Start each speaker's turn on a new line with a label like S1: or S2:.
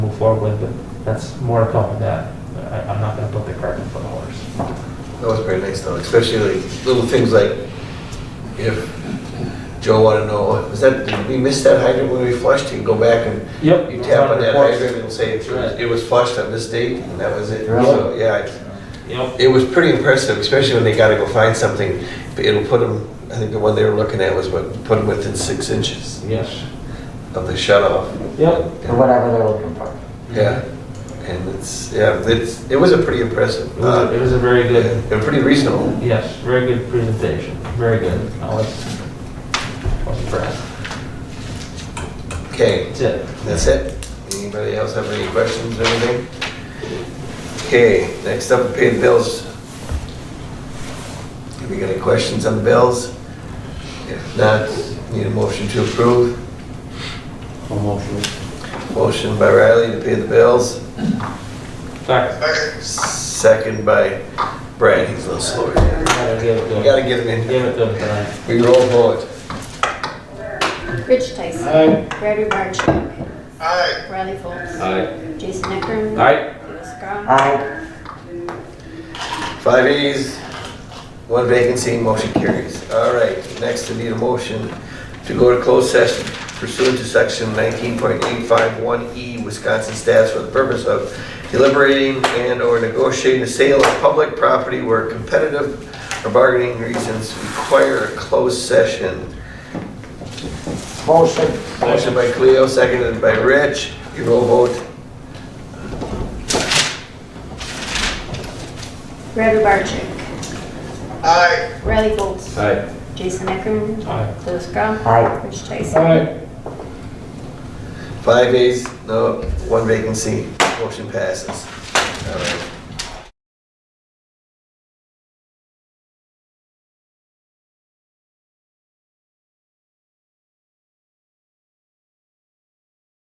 S1: forward, but that's more to come with that. I, I'm not gonna put the cart before the horse.
S2: That was very nice though, especially like little things like if Joe wanted to know, was that, did we miss that hydrant when we flushed? You can go back and
S1: Yep.
S2: you tap on that hydrant and say it was- it was flushed on this date and that was it.
S1: Right.
S2: So, yeah, it's-
S1: Yep.
S2: it was pretty impressive, especially when they gotta go find something. But It'll put them, I think the one they were looking at was what, put them within six inches
S1: Yes.
S2: of the shut off.
S1: Yep.
S3: or whatever they're looking for.
S2: Yeah, and it's, yeah, it's, it was a pretty impressive.
S1: It
S2: uh,
S1: was, a- it was a very good,
S2: And pretty reasonable.
S1: yes, very good presentation, very good. I was, I was impressed.
S2: Okay,
S1: That's it.
S2: that's it. Anybody else have any questions or anything? Okay, next up, pay the bills. Have we got any questions on the bills? If not, need a motion to approve. Motion by Riley to pay the bills,
S1: Fact,
S2: second by Brad, he's a little
S1: I
S2: slower.
S1: gotta give it to
S2: We
S1: him,
S2: gotta get him in
S1: give
S2: here.
S1: it to him tonight.
S2: We roll for it.
S4: Rich Tyson.
S1: Aye.
S4: Gary Barnchuk. Aye. Riley Foltz. Aye. Jason Eckern.
S1: Aye.
S4: Louis Grom.
S3: Aye,
S2: Five ayes, one vacancy, motion carries. All right, next I need a motion to go to closed session pursuant to section 19.851E E, Wisconsin Stats for the purpose of deliberating and/or negotiating the sale of public property where competitive or bargaining reasons require a closed session.
S3: motion,
S2: Motion by Cleo, seconded by Rich. You roll vote.
S4: Gary Barnchuk. Aye. Riley Foltz. Aye. Jason Eckern.
S1: Aye.
S4: Louis Grom.
S3: Aye.
S4: Rich Tyson.
S2: Five ayes, no, one vacancy, motion passes. All right.